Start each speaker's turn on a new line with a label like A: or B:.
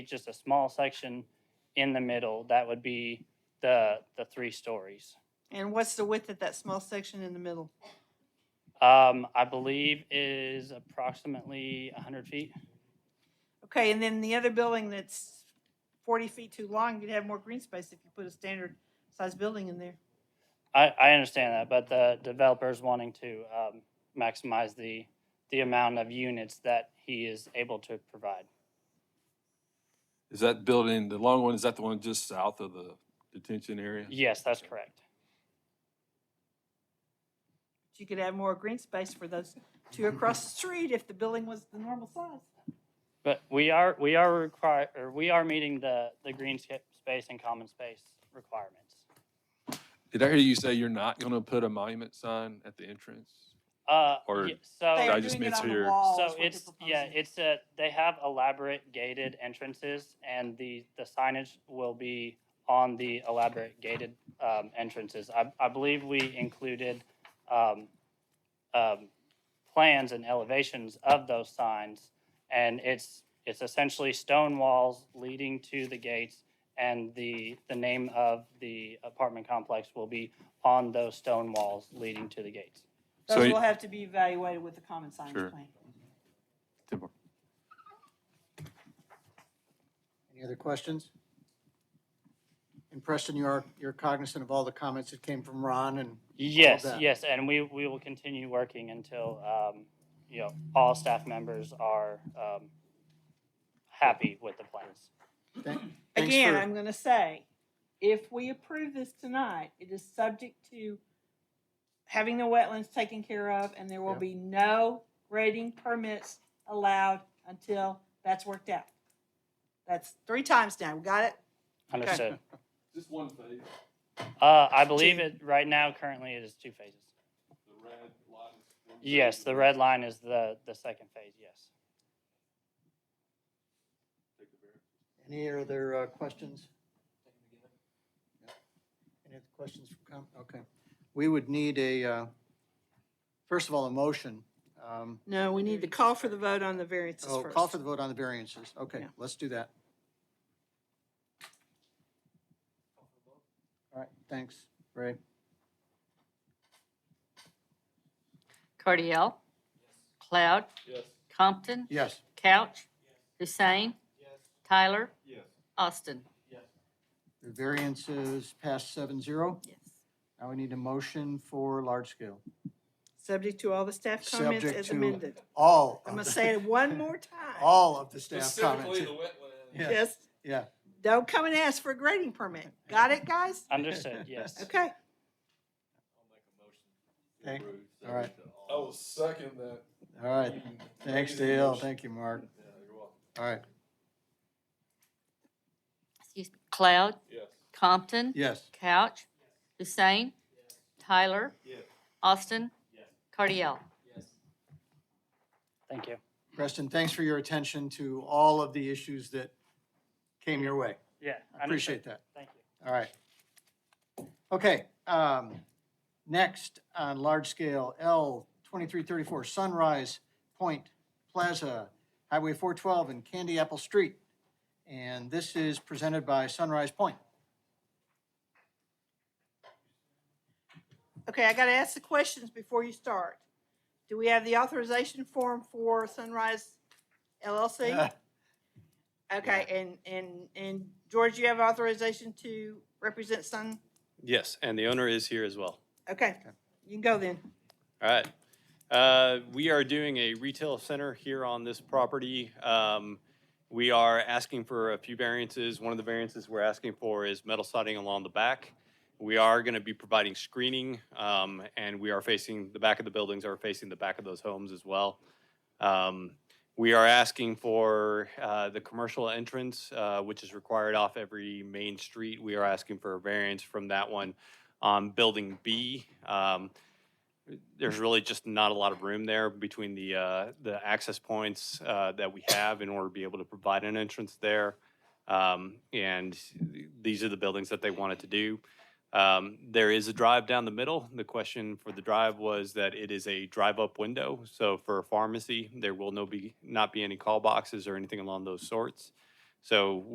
A: just a small section in the middle, that would be the, the three stories.
B: And what's the width of that small section in the middle?
A: Um, I believe is approximately hundred feet.
B: Okay, and then the other building that's forty feet too long, you'd have more green space if you put a standard size building in there.
A: I, I understand that, but the developer's wanting to, um, maximize the, the amount of units that he is able to provide.
C: Is that building, the long one, is that the one just south of the detention area?
A: Yes, that's correct.
B: But You could have more green space for those two across the street if the building was the normal size.
A: But we are, we are require, or we are meeting the, the green sca- space and common space requirements.
C: Did I hear you say you're not going to put a monument sign at the entrance?
A: Uh,
C: Or-
A: ye- so.
B: They
C: I
B: are
C: just
B: doing it
C: meant
B: on the
C: here.
B: wall is
A: So
B: what they're
A: it's, yeah,
B: proposing.
A: it's a, they have elaborate gated entrances and the, the signage will be on the elaborate gated, um, entrances. I, I believe we included, um, um, plans and elevations of those signs. And it's, it's essentially stone walls leading to the gates and the, the name of the apartment complex will be on those stone walls leading to the gates.
C: So
B: Those
C: you-
B: will have to be evaluated with the common
C: Sure.
B: signage plan.
C: Timber.
D: Any other questions? And Preston, you are, you're cognizant of all the comments that came from Ron and
A: Yes,
D: that.
A: yes, and we, we will continue working until, um, you know, all staff members are, um, happy with the plans.
D: thank- thanks
B: Again,
D: for,
B: I'm gonna say, if we approve this tonight, it is subject to having the wetlands taken care of, and there will
D: Yeah.
B: be no grading permits allowed until that's worked out. That's three times now, got it?
A: Understood.
C: Just one phase,
A: Uh, I believe it, right now, currently it is two phases.
C: the red line.
A: Yes, the red line is the, the second phase, yes.
D: any other uh, questions? No. Any other questions from, com- okay. We would need a, uh, first of all, a motion. Um,
B: No, we need to call for the vote on the variances
D: Oh, call for the vote on the variances. Okay,
B: Yeah.
D: let's do that. All right, thanks, Ray.
E: Cardiel. Cloud.
C: Yes.
E: Compton.
D: Yes.
E: Couch. Hussein. Tyler. Austin.
D: The variances passed seven zero.
E: Yes.
D: Now we need a motion for large scale.
B: Subject to all the staff comments
D: Subject
B: as
D: to-
B: amended.
D: All.
B: I'm
D: of
B: gonna
D: the-
B: say it one more time.
D: All of the staff comments.
C: wetland.
D: Yeah.
B: Yes,
D: Yeah,
B: don't come and ask for a grading permit. Got it, guys?
A: Understood, yes.
B: Okay.
D: Okay, all right.
C: I will second that.
D: all right. Thanks, Dale. Thank you, Mark.
C: you're welcome.
D: All right,
E: Excuse me. Cloud.
C: Yes.
E: Compton.
D: yes.
E: Couch. Hussein. Tyler.
C: Yes.
E: Austin. Cardiel.
A: Thank you.
D: Preston, thanks for your attention to all of the issues that came your way.
A: Yeah.
D: I appreciate that.
A: Thank you.
D: All right. Okay, um, next on large scale, L twenty-three thirty-four Sunrise Point Plaza, Highway four twelve and Candy Apple Street. And this is presented by Sunrise Point.
B: Okay, I gotta ask the questions before you start. Do we have the authorization form for Sunrise
D: Uh,
B: LLC? Okay, and, and, and George, you have authorization to represent Sun?
F: Yes, and the owner is here as well.
B: Okay, you can go then.
F: All right. Uh, We are doing a retail center here on this property. Um, We are asking for a few variances. One of the variances we're asking for is metal siding along the back. We are going to be providing screening, um, and we are facing, the back of the buildings are facing the back of those homes as well. Um, We are asking for uh, the commercial entrance, uh, which is required off every main street. We are asking for a variance from that one on Building B. Um, there's really just not a lot of room there between the, uh, the access points, uh, that we have in order to be able to provide an entrance there. Um, and th- these are the buildings that they wanted to do. Um, there is a drive down the middle. The question for the drive was that it is a drive-up window. So for a pharmacy, there will no be, not be any call boxes or anything along those sorts. So